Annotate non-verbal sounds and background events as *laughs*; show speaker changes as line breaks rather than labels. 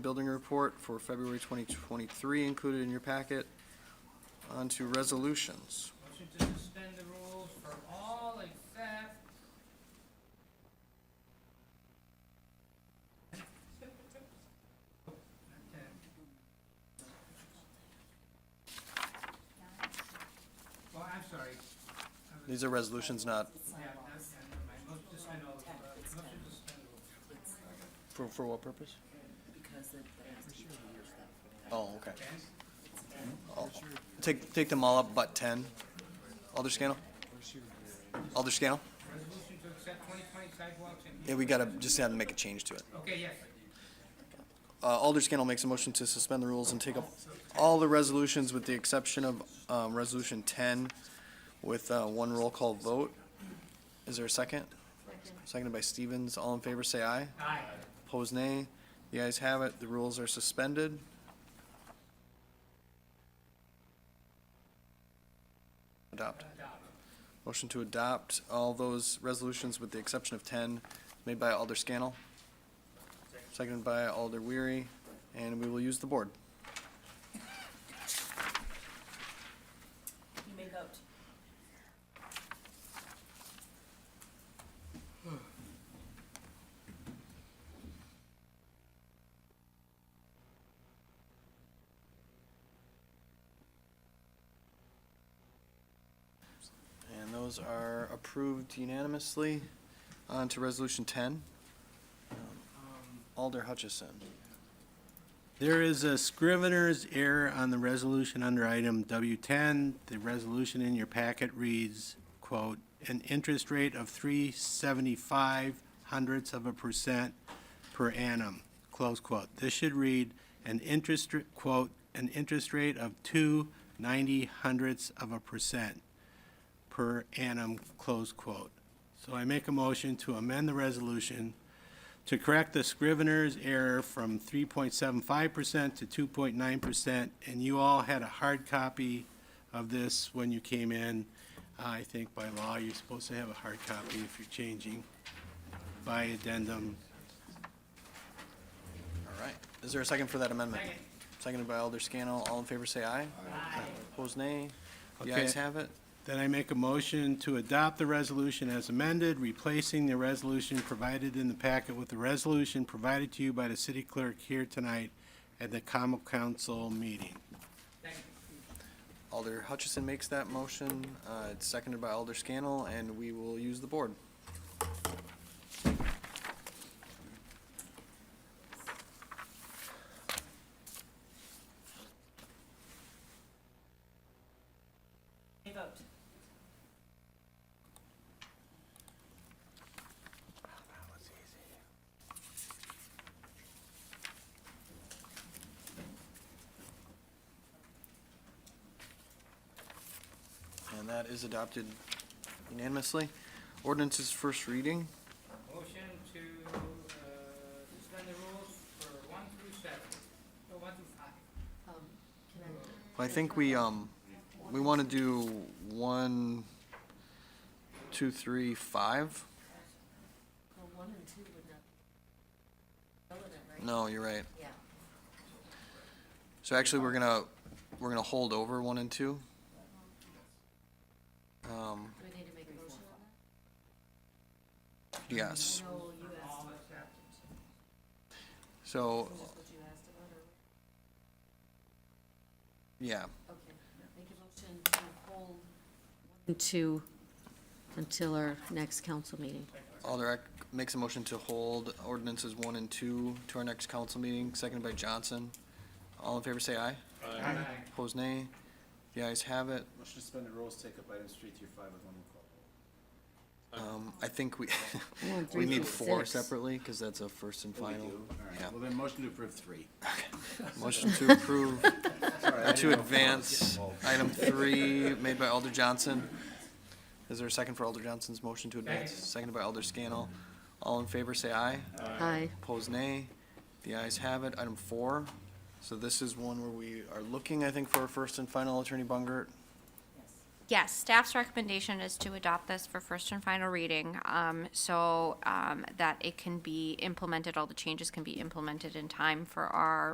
Building report for February 2023 included in your packet. On to resolutions.
Motion to suspend the rules for all except. Okay. Well, I'm sorry. I was-
These are resolutions not,
Yeah, yeah, never mind. Motion to suspend all, uh, motion to suspend the rules.
for, for what purpose?
Because it has to be changed that for that.
Oh, okay.
Okay?
All- Oh, Take, take them all up but 10. Alder Scannell? Alder Scannell?
Resolution to accept twenty twenty sidewalks and.
Yeah, we gotta, just gotta make a change to it.
Okay, yes.
Uh, Alder Scannell makes a motion to suspend the rules and take up all the resolutions with the exception of, um, Resolution ten with, uh, one roll call vote. Is there a second? Seconded by Stevens. All in favor, say aye.
Aye.
Opposed, nay. The ayes have it. The rules are suspended. Adopt.
Adopt.
Motion to adopt all those resolutions with the exception of ten, made by Alder Scannell, seconded by Alder Weary, and we will use the board.
You may vote.
And those are approved unanimously. On to Resolution ten. Um, Alder Hutchison.
There is a scrivener's error on the resolution under item W10. The resolution in your packet reads, quote, "An interest rate of 375 hundredths of a percent per annum," close quote. This should read, "An interest, r- quote, an interest rate of 290 hundredths of a percent per annum," close quote. So I make a motion to amend the resolution to correct the Scrivener's error from 3.75% to 2.9%, and you all had a hard copy of this when you came in. I think by law, you're supposed to have a hard copy if you're changing by addendum.
All right. Is there a second for that amendment?
Second.
Seconded by Alder Scannell. All in favor, say aye.
Aye.
Opposed, nay. The
Okay.
ayes have it.
Then I make a motion to adopt the resolution as amended, replacing the resolution provided in the packet with the resolution provided to you by the city clerk here tonight at the common council meeting.
Second.
Alder Hutchison makes that motion. Uh, it's seconded by Alder Scannell, and we will use the board.
You may vote.
And that is adopted unanimously. Ordinance's first reading.
Motion to uh, suspend the rules for one through seven, no, one through five.
I think we, um, we want to do one, two, three, five?
Well, one and two would not. Relevant, right?
No, you're right.
Yeah.
So actually, we're gonna, we're gonna hold over one and two. Um,
Do we need to make a motion on that?
yes.
No, you asked.
All except,
So,
Is this what you asked about, or?
yeah,
Okay. Make a motion to hold. And two until our next council meeting.
Alder Eck makes a motion to hold ordinances one and two to our next council meeting, seconded by Johnson. All in favor, say aye.
Aye.
Opposed, nay. The ayes have it.
Motion to suspend the rules, take up items three through five with one roll call vote.
Um, I think we, *laughs*
Well,
we
three
need
through
four
six.
separately, because that's a first and
We
final.
do? All right.
Yeah.
Well, then motion to approve three. *laughs*
Motion to approve,
Sorry, I didn't know if
or to
I was getting
advance
involved.
item three, made by Alder Johnson. Is there a second for Alder Johnson's motion to advance?
Second.
Seconded by Alder Scannell. All in favor, say aye.
Aye.
Opposed, nay. The ayes have it. Item four. So this is one where we are looking, I think, for a first and final, Attorney Bungert.
Yes.
Yes, staff's recommendation is to adopt this for first and final reading, um, so, um, that it can be implemented, all the changes can be implemented in time for our